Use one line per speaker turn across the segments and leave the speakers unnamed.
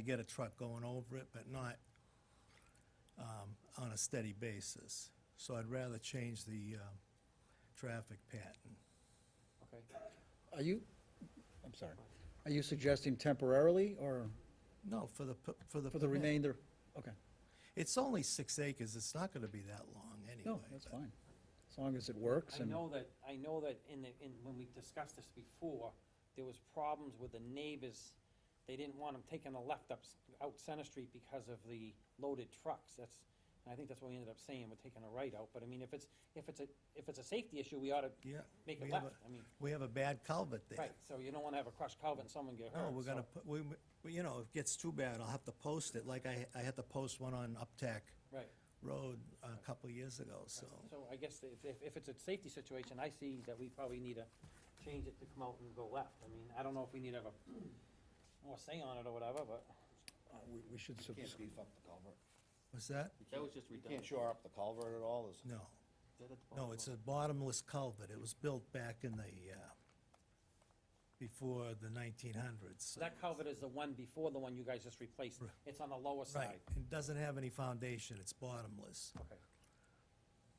to get a truck going over it, but not um, on a steady basis. So I'd rather change the um, traffic pattern.
Okay.
Are you, I'm sorry, are you suggesting temporarily or
No, for the, p- for the.
for the
permit.
remainder? Okay,
It's only six acres, it's not gonna be that long anyway.
no, that's
but-
fine, as long as it works
I
and,
know that, I know that in the, in, when we discussed this before, there was problems with the neighbors. They didn't want them taking a left up, s- out Center Street because of the loaded trucks. That's, I think that's what we ended up saying, we're taking a right out. But I mean, if it's, if it's a, if it's a safety issue, we ought to
Yeah.
make
we
it
have
left.
a-
I mean,
We have a bad culvert there.
right, so you don't wanna have a crushed culvert and someone get hurt.
No, we're gonna,
so-
put- we, we- you know, if it gets too bad, I'll have to post it, like I, I had to post one on Uptack
Right.
Road a couple years ago, so.
So I guess if, if, if it's a safety situation, I see that we probably need to change it to come out and go left. I mean, I don't know if we need to have a more say on it or whatever, but.
uh, we- we should,
You can't
subs-
beef up the culvert.
What's that?
That was just
You can't shore up the culvert at all, there's,
No, no, it's a bottomless culvert. It was built back in the, uh, before the nineteen hundreds.
So that culvert is the one before the one you guys just replaced.
Right.
It's on the lower
Right,
side.
it doesn't have any foundation, it's bottomless.
Okay.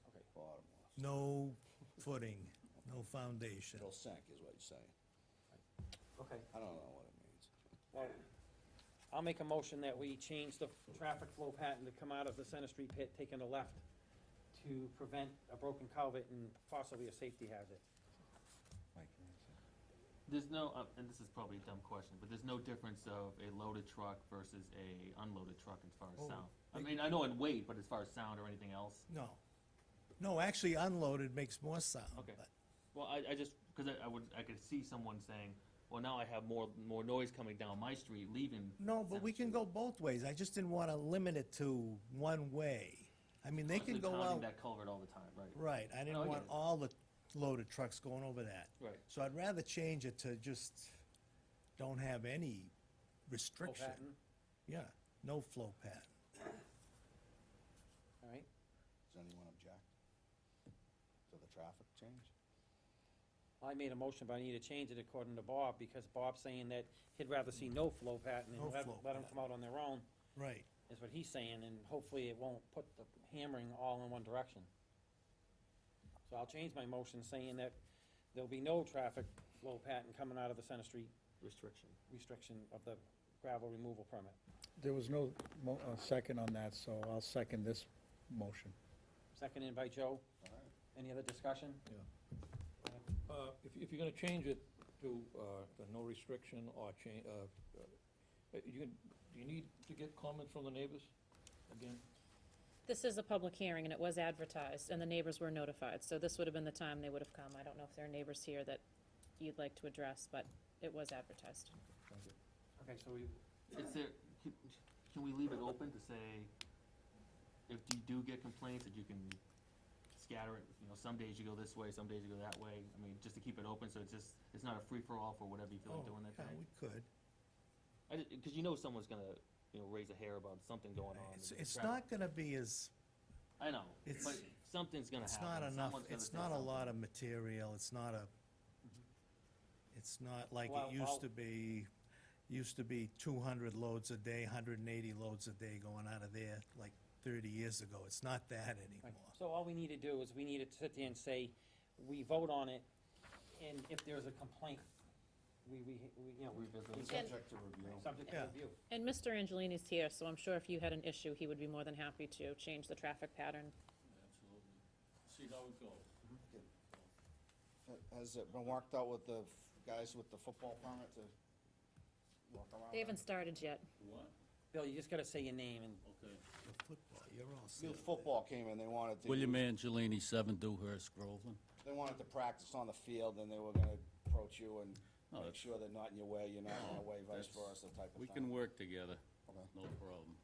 Okay.
bottom line.
No footing, no foundation.
It'll sink, is what you're saying.
Okay.
I don't know what it means.
Well, I'll make a motion that we change the traffic flow pattern to come out of the Center Street pit, taking a left to prevent a broken culvert and possibly a safety hazard.
There's no, uh, and this is probably a dumb question, but there's no difference of a loaded truck versus a unloaded truck as far
Oh,
as sound. I
they-
mean, I know in weight, but as far as sound or anything else,
No. No, actually unloaded makes more sound.
Okay.
but-
well, I, I just, cause I, I would, I could see someone saying, well, now I have more, more noise coming down my street, leaving.
No, but we can go
Sounds
both ways. I just didn't want to limit it to one way. I mean, they can
Constantly
go
pounding
out,
That culvert all the time, right?
right, I
No, I
didn't
get
want
it.
all the loaded trucks going over that.
Oh, Right.
So I'd rather change it to just don't have any
Flow
restriction.
pattern,
Yeah, no flow pattern.
All right.
Does anyone object to the traffic change?
I made a motion, but I need to change it according to Bob, because Bob's saying that he'd rather see no flow pattern
No
and let,
flow
let them
pattern.
come out on their own,
Right,
is what he's saying, and hopefully it won't put the hammering all in one direction. So I'll change my motion saying that there'll be no traffic flow pattern coming out of the Center Street
Restriction.
restriction of the gravel removal permit.
there was no mo- uh, second on that, so I'll second this motion.
Seconded by Joe.
All right.
Any other discussion?
Uh, If, if you're gonna change it to, uh, the no restriction or change, uh, uh, you, can- do you need to get comments from the neighbors again?
This is a public hearing, and it was advertised, and the neighbors were notified, so this would have been the time they would have come. I don't know if there are neighbors here that you'd like to address, but it was advertised.
Okay, so we,
Is there, can, can we leave it open to say, if you do get complaints, that you can scatter it, you know, some days you go this way, some days you go that way? I mean, just to keep it open, so it's just, it's not a free-for-all for whatever you feel like
Oh,
doing that
yeah,
day?
we could.
I just, cause you know someone's gonna, you know, raise a hair about something going on.
It's,
with the
it's
traffic.
not gonna be as,
I know,
it's-
but something's gonna
it's not
happen.
enough,
someone's gonna
it's
say
not a
something.
lot of material, it's not a, it's not like
Well,
it used
well-
to be, used to be two hundred loads a day, hundred and eighty loads a day going out of there, like thirty years ago, it's not that
Right,
anymore.
So all we need to do is we need to sit there and say, we vote on it, and if there's a complaint, we, we, we, you know, we.
Revisit,
we-
subject to review.
Subject to
Yeah.
review.
And Mr. Angelini's here, so I'm sure if you had an issue, he would be more than happy to change the traffic pattern.
Absolutely. See how it goes.
Ha- Has it been worked out with the f- guys with the football permit to walk around?
They
in?
haven't started yet.
What?
Bill, you just gotta say your name and
Okay.
The Football, you're all set.
Youth football came in, they wanted to.
William
use-
Angelini, seven Dewhurst, Groveland.
They wanted to practice on the field, and they were gonna approach you and
No,
make
that's-
sure they're not in your way, you're not in their way, vice
That's-
versa type of thing.
We can work together,
Okay.
no problem.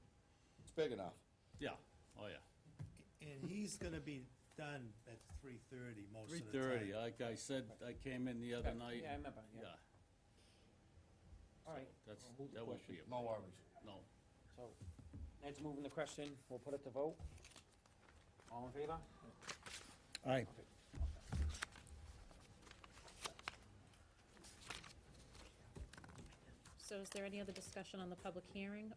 It's big enough.
Yeah, oh yeah.
And he's gonna be done at three thirty most
Three
of the time.
thirty, like I said, I came in the other
Yeah,
night.
yeah, I remember, yeah. All right,
That's,
Hold the
that would
question.
be, a-
No worries.
no.
so, let's move in the question, we'll put it to vote. All in favor?
Aye,
So is there any other discussion on the public hearing,